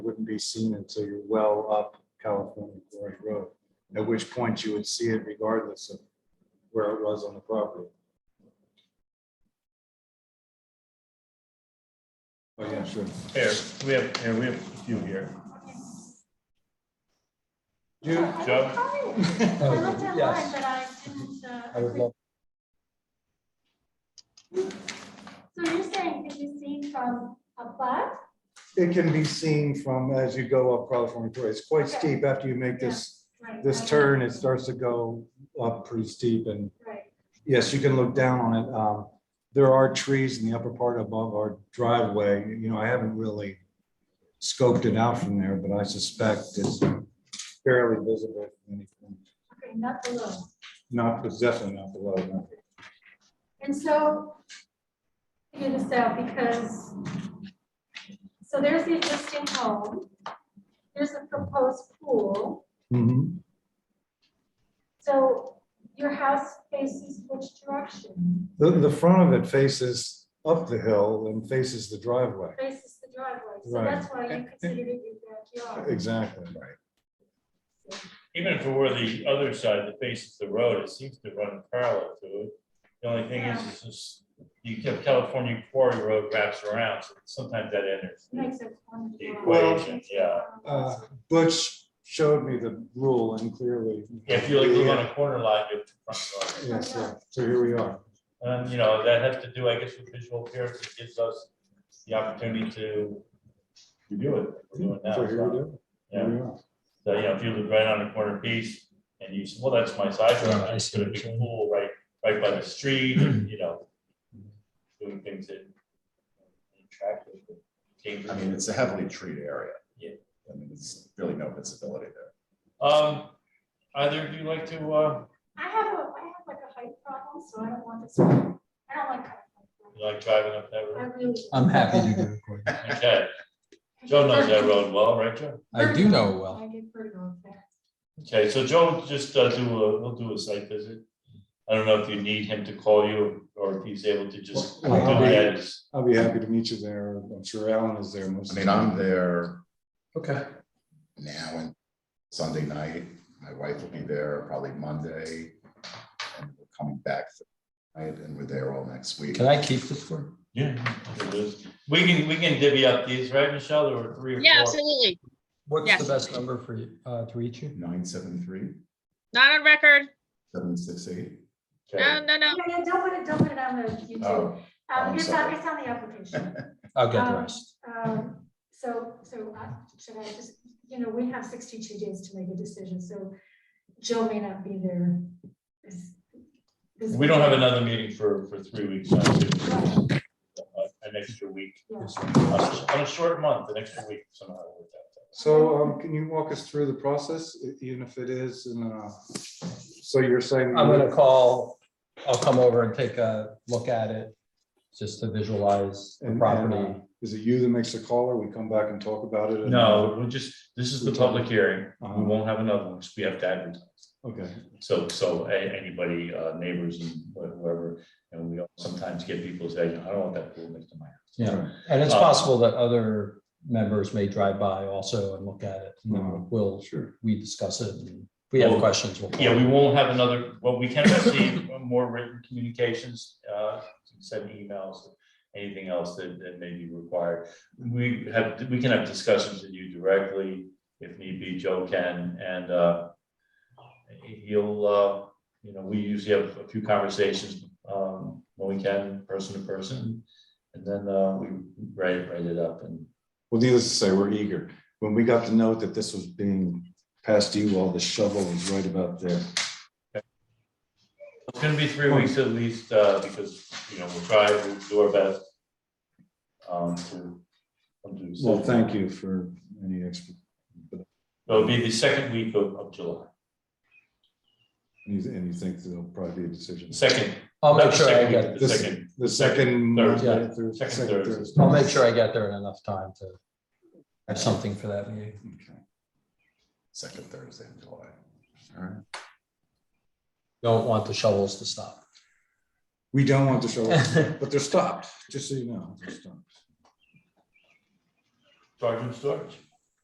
seen until you're well up California Quarry Road, at which point you would see it regardless of where it was on the property. Oh, yeah, sure. Here, we have, here, we have a few here. You, Oh, Joe? I looked online, Yes. but I didn't, uh, I would love, So you're saying if you see from above, it can be seen from as you go up California Quarry. It's quite steep after you make this, right? this right, turn, it starts to go up pretty steep and Right, Yes, you can look down on it. Um, There are trees in the upper part above our driveway. You know, I haven't really scoped it out from there, but I suspect it's fairly visible. from anything. okay, not below. Not, it's definitely not below. no. And so, figure this out because, so there's the existing home, there's a proposed pool. So your house faces which direction? The, the front of it faces up the hill and faces the driveway. Faces the driveway, so Right. that's why you considered it your backyard. Exactly. Right. Even if it were the other side that faces the road, it seems to run parallel to it. The only thing is, is this- you have California Quarry Road wraps around, so sometimes that enters. Makes it one. The lot. equation, yeah. Uh, Butch showed me the rule and clearly. If you like live on a corner lot, you have two front yards. Yes, yeah. so here we are. And, you know, that has to do, I guess, with visual appearance, it gives us the opportunity to review it. We're doing now, So here we do. Yeah. Here we are. So, you know, if you live right on a corner piece and you, say, well, that's my side yard, Yeah, I I see put a what big you're saying. pool right, right by the street, and, you know. Doing things that. attractive, that came I from mean, you. it's a heavily treated area. Yeah. I mean, it's really no visibility there. Um, either of you like to, uh, I have a, I have like a height problem, so I don't want this, I don't like. height. you like driving up that I road? really. I'm happy to do it. Gordon. Okay, Joe knows that road well, right, Joe? I do know it well. I get vertigo there. Okay, so Joe, just uh, do a, we'll do a site visit. I don't know if you need him to call you or if he's able to just. do Well, I'll be- that as- I'll be happy to meet you there. I'm sure Alan is there most. I of mean, the time. I'm there Okay. now and Sunday night, my wife will be there probably Monday. And we're coming back, right, and we're there all next week. Can I keep this for? Yeah. it is. We can, we can divvy up these, right, Michelle? There were three or Yeah, four. absolutely. What's Yes. the best number for you, uh, to reach you? Nine seven three, Not on record. seven six eight. Okay. No, no, no. Yeah, yeah, don't put it, don't put it on the YouTube. Oh, Um, I'm it's on, sorry. it's on the application. I'll get the Um, rest. Um, so, so I, should I just, you know, we have sixty-two days to make a decision, so Joe may not be there. this- this We don't have weekend. another meeting for, for three weeks. I think. Uh, An extra week. On a short month, an extra week somehow. we'll work that So um, can you walk us through the process, e- even if it is, in uh, so you're saying. I'm gonna call, I'll come over and take a look at it, just to visualize the And- property. and, uh, Is it you that makes the call or we come back and talk about it? out. No, we'll just, this is the public hearing. We Uh-huh. won't have another one because we have to advertise. Okay, So, so a- anybody, uh, neighbors and wh- whoever, and we sometimes get people say, I don't want that pool next to my house. Yeah, and it's Uh, possible that other members may drive by also and look at it. and Mhm. then We'll, sure. we discuss it. and If we have Uh-huh. Well, questions, we'll. call. Yeah, we won't have another, well, we can receive more written communications, uh, send emails, anything else that, that may be required. We have, we can have discussions with you directly if need be, Joe can, and, uh, he'll, uh, you know, we usually have a few conversations, um, when we can, person to person. And then, uh, we write, write it up and, Well, needless to say, we're eager. When we got the note that this was being passed to you, all the shovel was right about there. It's gonna be three weeks at least, uh, because, you know, we'll try, we'll do our best. Um, to. come to a decision. Well, thank you for any extra, It'll be the second week of, of July, and you- and you think there'll probably be a decision. second. I'll not make the sure I second week, get, The This- second, The second. Thursday. Monday through- Second second Thursday. Thursday. I'll make sure I get there in enough time to have something for that meeting. Okay. Second Thursday in July. All right. Don't want the shovels to stop. We don't want the shovel, but they're stopped, just so you know. they're stopped. charge and storage.